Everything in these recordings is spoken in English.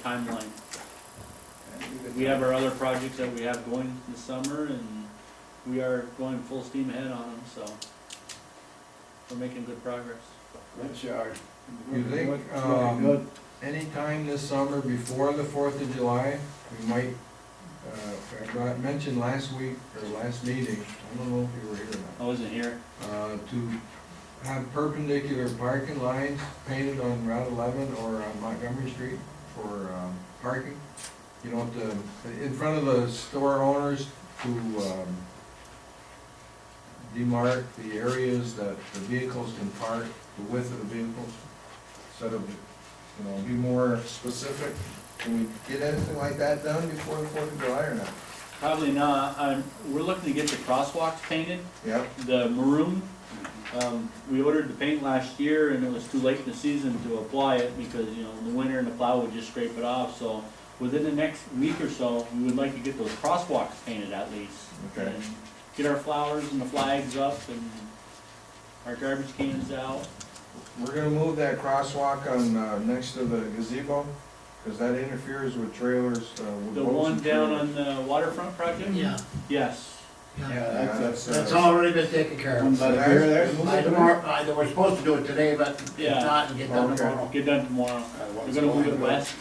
timeline. We have our other projects that we have going this summer, and we are going full steam ahead on them, so we're making good progress. That's yard. You think, um, anytime this summer before the Fourth of July, we might, uh, I got- mentioned last week, or last meeting, I don't know if you were here or not, I wasn't here. uh, to have perpendicular parking lines painted on Route eleven or on Montgomery Street for, um, parking. You know, at the, in front of the store owners to, um, demarc the areas that the vehicles can park, the width of the vehicles, instead of, you know, be more specific. Can we get anything like that done before the Fourth of July or not? Probably not. i we're looking to get the crosswalks painted, Yep, the maroon. Um, we ordered the paint last year and it was too late in the season to apply it because, you know, in the winter and the plow would just scrape it off, so within the next week or so, we would like to get those crosswalks painted at least. Okay. And Get our flowers and the flags up and our garbage cans out. We're gonna move that crosswalk on, uh, next to the gazebo, cause that interferes with trailers, uh, with boats. The one and down trailers. on the waterfront project? Yeah, Yes. yeah. Yeah, Yeah, that's, that's, uh, That's already been taken care one of. by the beer there. By tomorrow, uh, they were supposed to do it today, but if Yeah. not, and get done Okay. tomorrow. Get done tomorrow. We're We're gonna move it west.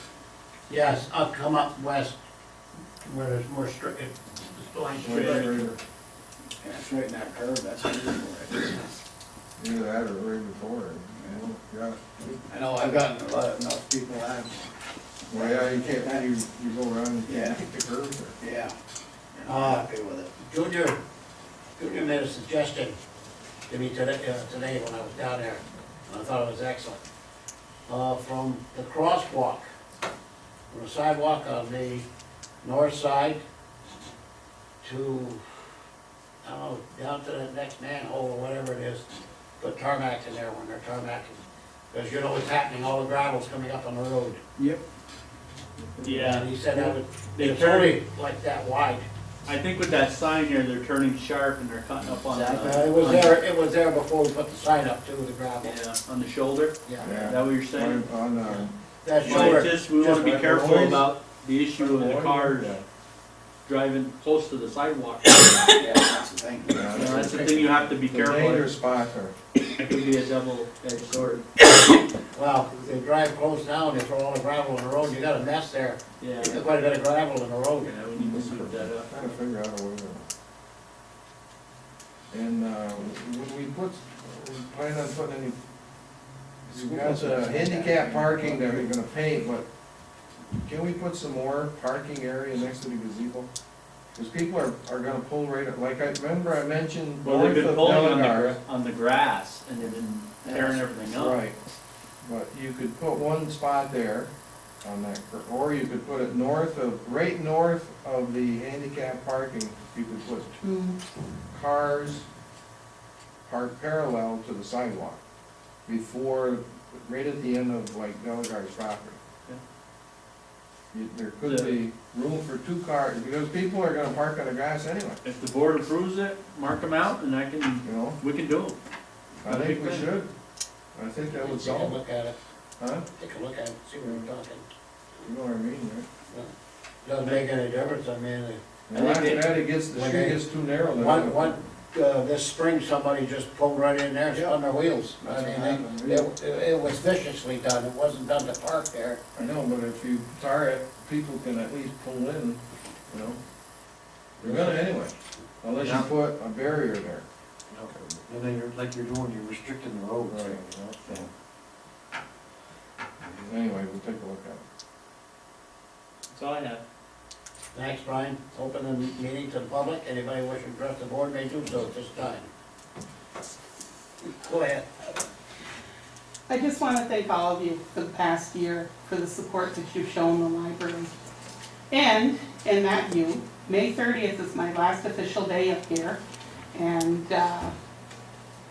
Yes, I'll come up west where there's more uh, straight, lines Wait, straight. or That's right in that curve, that's where we're going. Either that or right before, it, you know, yeah, I know, I've gotten a lot, enough people out, well, yeah, you can't, you, you go around, and Yeah. can't hit the curb there. yeah. They're not Happy with it. Junior, Junior made a suggestion to me today, uh, today when I was down there, and I thought it was excellent. Uh, from the crosswalk, from the sidewalk on the north side to, I don't know, down to the next manhole or whatever it is, put tarmac in there when they're tarmacking. Because you know what's happening, all the gravel's coming up on the road. Yep. Yeah. And he said that would, They it's turn- only like that wide. I think with that sign here, they're turning sharp and they're cutting up on the. Exactly, Uh, it was there, it was there before we put the sign up too, the gravel, Yeah, on the shoulder, is yeah. Yeah. that what you're saying? On, uh, That's Well, it's sure, just, we wanna be Just- careful Always. about the issue of the cars Yeah. driving close to the sidewalk. Yeah, that's the thing. Yeah. You know, that's the thing you have to be The careful, danger of. spot there. it could be a double-edged sword, well, they drive close down, they throw all the gravel in the road, you got a mess there, yeah. there's quite a bit of gravel in the road. Yeah, we need to sweep that up. Gotta figure out a way to. And, uh, when we put, we plan on putting any, we've got the handicap parking that we're gonna paint, but can we put some more parking area next to the gazebo? Cause people are, are gonna pull right, up- like I, remember I mentioned. Well, they've north been of pulling on the, Delagar. gra- on the grass and they've been tearing everything up. Right, but you could put one spot there on that, cur- or you could put it north of, right north of the handicap parking. You could put two cars parked parallel to the sidewalk before, right at the end of like Delagar's property. Yeah. You- There could be room for two cars, because people are gonna park on the grass anyway, If the board approves it, mark them out and I can, you know? we can do them. I think we should. I think that would Take a solve, it. look at it, huh? take a look at it, see what we're talking, You know what I mean, right? doesn't make any difference, I mean, And after that, it gets, the Like street a- gets too narrow. then- one, one, uh, this spring, somebody just pulled right in there and spun their wheels. I That's what mean, happened. they- it, it was viciously done, it wasn't done to park there. I know, but if you tar it, people can at least pull in, you know? They're gonna anyway, unless you Yeah. put a barrier there. And then you're, like you're doing, you're restricting the road, so, you know? Anyway, we'll take a look at it. That's all I have. Thanks, Brian. Open the meeting to the public. Anybody wishing to address the board may do so at this time. Go ahead. I just want to thank all of you for the past year, for the support that you've shown the library. And, and not you, May thirtieth is my last official day up here. And, uh,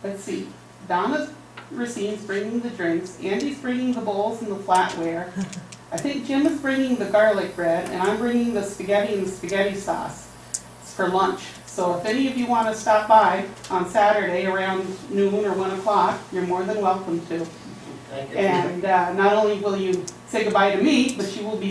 let's see, Donna Racine's bringing the drinks, Andy's bringing the bowls and the flatware. I think Jim is bringing the garlic bread, and I'm bringing the spaghetti and the spaghetti sauce. It's for lunch. So if any of you want to stop by on Saturday around noon or one o'clock, you're more than welcome to. Thank you. And uh, not only will you say goodbye to me, but you will be